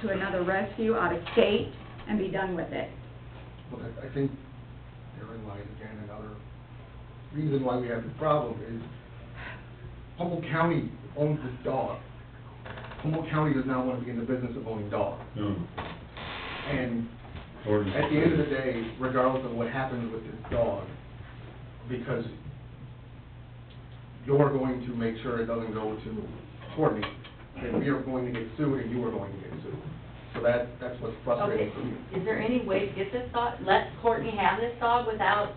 to another rescue out of state and be done with it. But I, I think therein lies again another reason why we have this problem is Humboldt County owns this dog. Humboldt County does not want to be in the business of owning dogs. No. And Ordinance. at the end of the day, regardless of what happens with this dog, because you're going to make sure it doesn't go to Courtney, then we are going to get sued and you are going to get sued. So that, that's what's Okay, frustrating for me. is there any way to get this dog, let Courtney have this dog without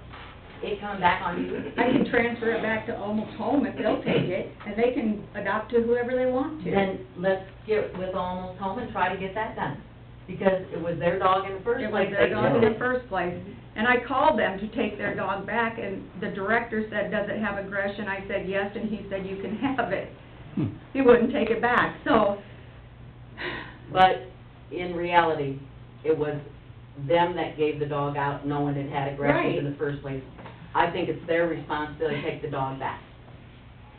it coming back on you? I can transfer it back to Almost Home if they'll take it, and they can adopt to whoever they want to. Then let's get with Almost Home and try to get that done, because it was their dog in the first It was place. their They dog took in the it. first place. And I called them to take their dog back, and the director said, does it have aggression? I said, yes, and he said, you can have it. He wouldn't take it back, so, But in reality, it was them that gave the dog out, knowing it had aggressions in Right. the first place. I think it's their responsibility to take the dog back,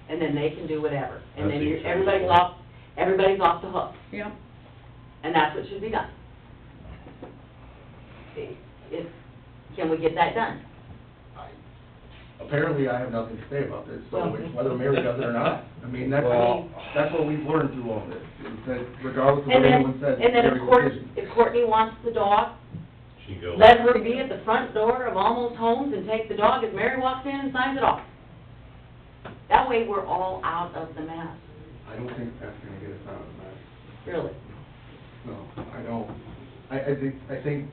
and then they can do whatever. And I then think you're- so. everybody's off, everybody's off the hook. yeah. And that's what should be done. If, can we get that done? I- Apparently, I have nothing to say about this, so it's whether Mary does it or not, I mean, that's, Well- that's what we've learned through all this, is that regardless of And what then, anyone says, and then Mary's if Courtney, decision. if Courtney wants the dog, She goes. let her be at the front door of Almost Homes and take the dog as Mary walks in and signs it off. That way, we're all out of the mess, I don't think that's gonna get us out of that, really. no, I don't, I, I think, I think,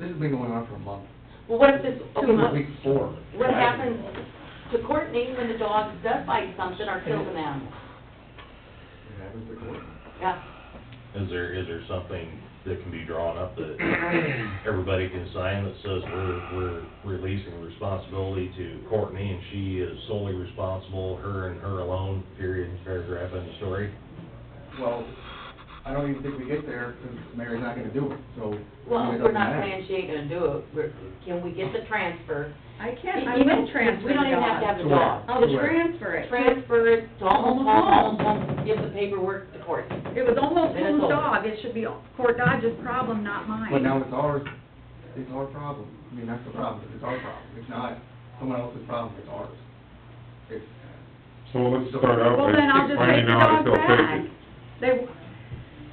this has been going on for a month, Well, what if this, okay, This is what, week four. what happens to Courtney when the dog does bite something or kills an animal? It happens to Courtney. Yeah, Is there, is there something that can be drawn up that everybody can sign that says we're, we're releasing responsibility to Courtney and she is solely responsible, her and her alone, period, paragraph in the story? Well, I don't even think we get there, because Mary's not gonna do it, so. I mean, it well, we're doesn't not matter. saying she ain't gonna do it, we're, can we get the transfer I can't, I E- Even will if transfer We the don't even have dog. to have the dog. I'll transfer it. Transfer it to Almost Oh, Home, Almost Home give the paperwork to court. It was Almost Then it's Home's over. dog, it should be Court Dodge's problem, not mine. But now it's ours, it's our problem. I mean, that's the problem, it's our problem. It's not someone else's problem, it's ours. It's, So let's start out Well, by then I'll just take finding the out if dog they'll back. take it. They,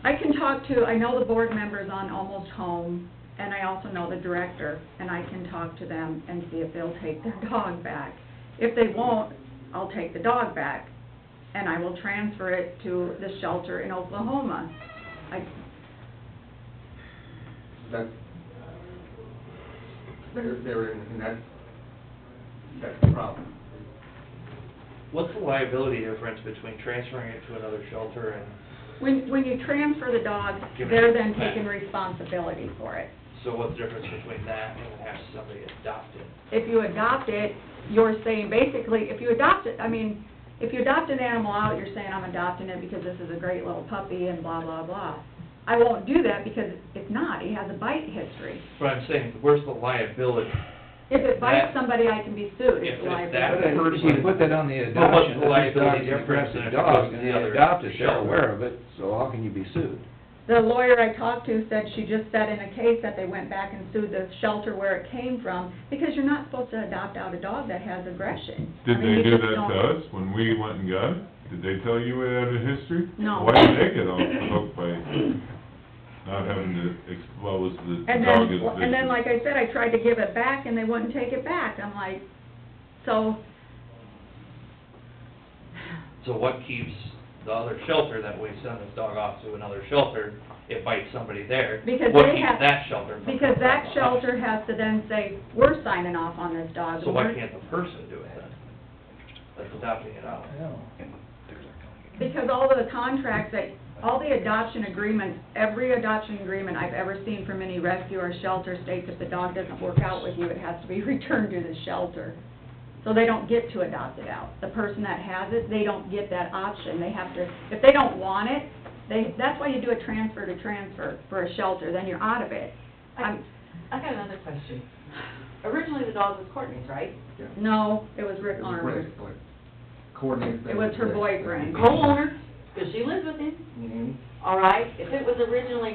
I can talk to, I know the board members on Almost Home, and I also know the director, and I can talk to them and see if they'll take their dog back. If they won't, I'll take the dog back, and I will transfer it to the shelter in Oklahoma. I, that's, they're, they're in, and that's, that's the problem. What's the liability difference between transferring it to another shelter and, when, when you transfer the dog, Give it they're then back. taking responsibility for it. so what's the difference between that and having somebody adopt it? if you adopt it, you're saying basically, if you adopt it, I mean, if you adopt an animal out, you're saying, I'm adopting it because this is a great little puppy and blah, blah, blah. I won't do that because it's not, he has a bite history. But I'm saying, where's the liability? If it bites That- somebody, I can be sued, If- it's if But that- liability. if you put that on the Well, what's the adoption, if the liability dog's an difference than if aggressive it goes dog, to and the they other adopt it, they're shelter? aware of it, so how can you be sued? The lawyer I talked to said she just said in a case that they went back and sued the shelter where it came from, because you're not supposed to adopt out a dog that has aggression. I Did mean, they you do just that to don't- us when we went and got it? Did they tell you we had a history? No. Why did they get off the hook by not having to expose the And dog then, as vicious? and then, like I said, I tried to give it back, and they wouldn't take it back. I'm like, so, So what keeps the other shelter that we send this dog off to another shelter, it bites somebody there? Because What they keeps have- that shelter from? because that shelter has to then say, we're signing off on this dog. So why We're- can't the person do it then? That's adopting it out. Because all the contracts that, all the adoption agreements, every adoption agreement I've ever seen from any rescue or shelter states if the dog doesn't work out with you, it has to be returned to the shelter. So they don't get to adopt it out. The person that has it, they don't get that option. They have to, if they don't want it, they, that's why you do a transfer to transfer for a shelter, then you're out of it. I I'm- I got another question. Originally, the dog was Courtney's, right? Yeah. No, it was Rick It's Armour. Rick, like, coordinates. It was her boyfriend. Co-owner, because she lives with him, hmm all right? If it was originally